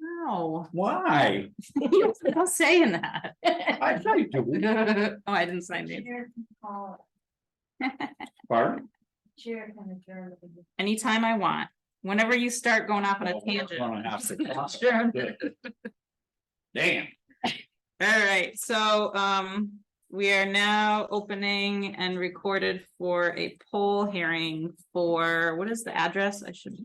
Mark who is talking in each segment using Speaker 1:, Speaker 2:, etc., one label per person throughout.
Speaker 1: No,
Speaker 2: Why?
Speaker 1: you're not saying that.
Speaker 2: I say do,
Speaker 1: Oh, I didn't sign it.
Speaker 3: Chair can call,
Speaker 2: pardon?
Speaker 3: chair can adjourn. the meeting.
Speaker 1: Anytime I want. Whenever you start going off on a
Speaker 2: Well, we're gonna have
Speaker 1: tangent.
Speaker 2: to-
Speaker 1: Sure.
Speaker 2: Damn.
Speaker 1: All right, so um, we are now opening and recorded for a poll hearing for, what is the address? I should. Do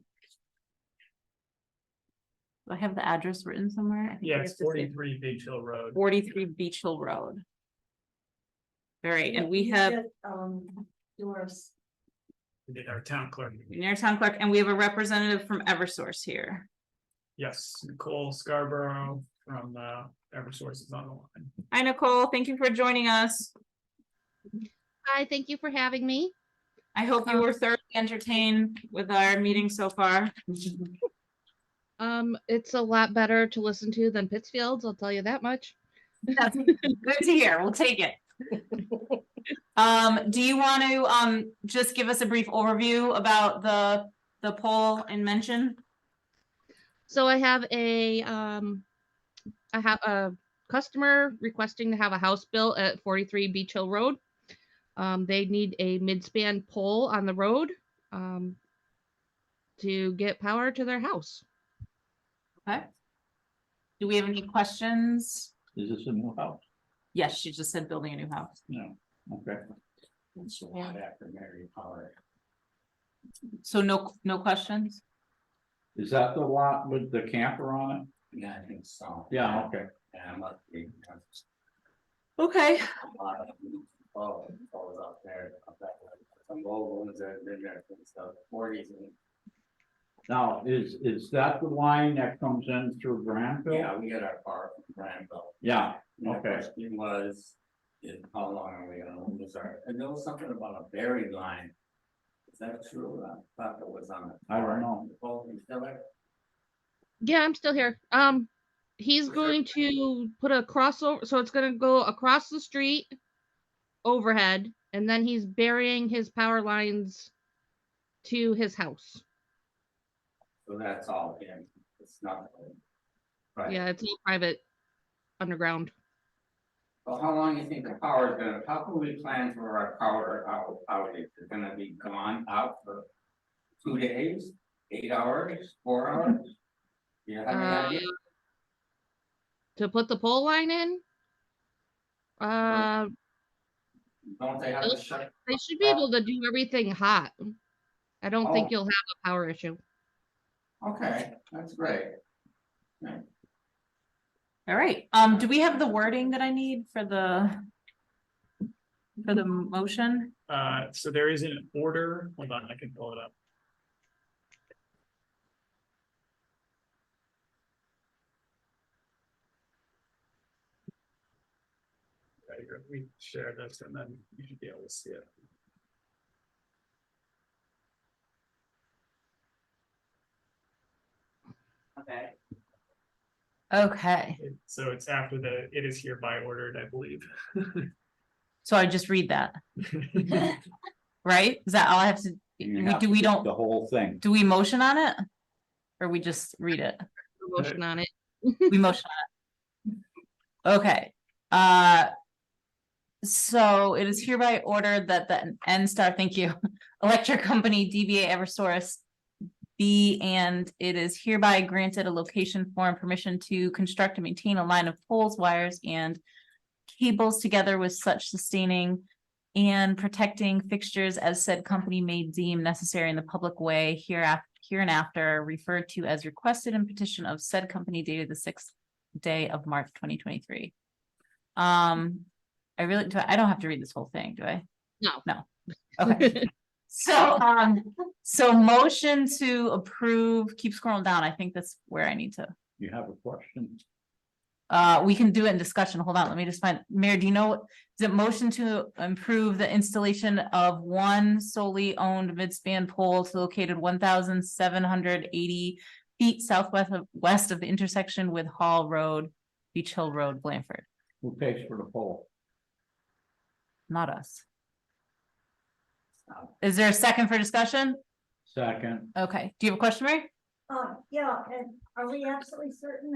Speaker 1: I have the address written somewhere? I think
Speaker 4: Yeah,
Speaker 1: I
Speaker 4: it's
Speaker 1: just did.
Speaker 4: forty-three Beach Hill Road.
Speaker 1: Forty-three Beach Hill Road. All right, and we
Speaker 3: You
Speaker 1: have
Speaker 3: just, Um, Doris,
Speaker 4: We did our town clerk.
Speaker 1: near town clerk, and we have a representative from Eversource here.
Speaker 4: Yes, Nicole Scarborough from uh Eversource is on the line.
Speaker 1: Hi Nicole, thank you for joining us.
Speaker 5: Hi, thank you for having me.
Speaker 1: I hope you were thoroughly entertained with our meeting so far.
Speaker 5: Um, it's a lot better to listen to than Pittsfield's, I'll tell you that much.
Speaker 1: That's Good to hear. We'll take it. Um, do you want to, um, just give us a brief overview about the, the poll and mention?
Speaker 5: So I have a, um, I have a customer requesting to have a house built at forty-three Beach Hill Road. Um, they need a mid-span pole on the road, um, to get power to their house.
Speaker 1: Okay. Do we have any questions?
Speaker 2: Is this a new house?
Speaker 1: Yes, she just said building a new house.
Speaker 2: No, okay. It's a lot after Mary Power.
Speaker 1: So no, no questions?
Speaker 2: Is that the lot with the camper on it?
Speaker 6: Yeah, I think so.
Speaker 2: Yeah, okay.
Speaker 6: Yeah, I'm not big, I'm just
Speaker 1: Okay.
Speaker 6: a lot of, oh, always up there, up that way. Some old ones that have been there since the forties and,
Speaker 2: Now, is, is that the line that comes in through Granville?
Speaker 6: yeah, we got our car from Granville.
Speaker 2: Yeah,
Speaker 6: And the
Speaker 2: Okay.
Speaker 6: Question was, is how long are we gonna lose our, and there was something about a buried line. Is that true? I thought it was on a
Speaker 2: I don't know.
Speaker 6: Both in Philip,
Speaker 5: Yeah, I'm still here. Um, he's
Speaker 6: Sure.
Speaker 5: going to put a crossover, so it's gonna go across the street overhead, and then he's burying his power lines to his house.
Speaker 6: so that's all, yeah, it's not. Right,
Speaker 5: Yeah, it's all private underground.
Speaker 6: well, how long you think the power is gonna, how can we plan for our power out, outage, it's gonna be gone out for. Two days, eight hours, four hours? You have any
Speaker 5: Uh,
Speaker 6: idea?
Speaker 5: to put the pole line in. Uh,
Speaker 6: Don't they have to shut?
Speaker 5: they should be able to do everything hot. I don't
Speaker 6: Uh, Oh.
Speaker 5: think you'll have a power issue.
Speaker 6: Okay, that's great.
Speaker 1: All right, um, do we have the wording that I need for the for the motion?
Speaker 4: Uh, so there is an order, hold on, I can pull it up. Right here, We share this and then you should be able to see it.
Speaker 6: Okay.
Speaker 1: Okay,
Speaker 4: It- So it's after the, it is hereby ordered, I believe.
Speaker 1: so I just read that, right? Is that all I have to, we-
Speaker 2: You have
Speaker 1: do
Speaker 2: to
Speaker 1: we
Speaker 2: do
Speaker 1: don't,
Speaker 2: The whole thing.
Speaker 1: do we motion on it? Or we just read it?
Speaker 5: No Motion on it.
Speaker 1: We motion on it. Okay, uh. So it is hereby ordered that the N Star, thank you, Electric Company DBA Eversource. Be and it is hereby granted a location for and permission to construct and maintain a line of poles, wires and. Cables together with such sustaining and protecting fixtures as said company may deem necessary in the public way hereafter here and after referred to as requested in petition of said company dated the sixth day of March twenty twenty-three. Um, I really, do. I I don't have to read this whole thing, do I?
Speaker 5: No.
Speaker 1: No, okay. So, um, so motion to approve, keep scrolling down, I think that's where I need to,
Speaker 2: You have a question?
Speaker 1: uh, we can do it in discussion, hold on, let me just find, Mayor, do you know? Is it motion to improve the installation of one solely owned midspan pole to located one thousand seven hundred eighty feet southwest of, west of the intersection with Hall Road, Beach Hill Road, Blanford,
Speaker 2: Who pays for the poll?
Speaker 1: not us. Is there a second for discussion?
Speaker 2: Second.
Speaker 1: Okay, do you have a question, Mary?
Speaker 3: Uh, yeah, and are we absolutely certain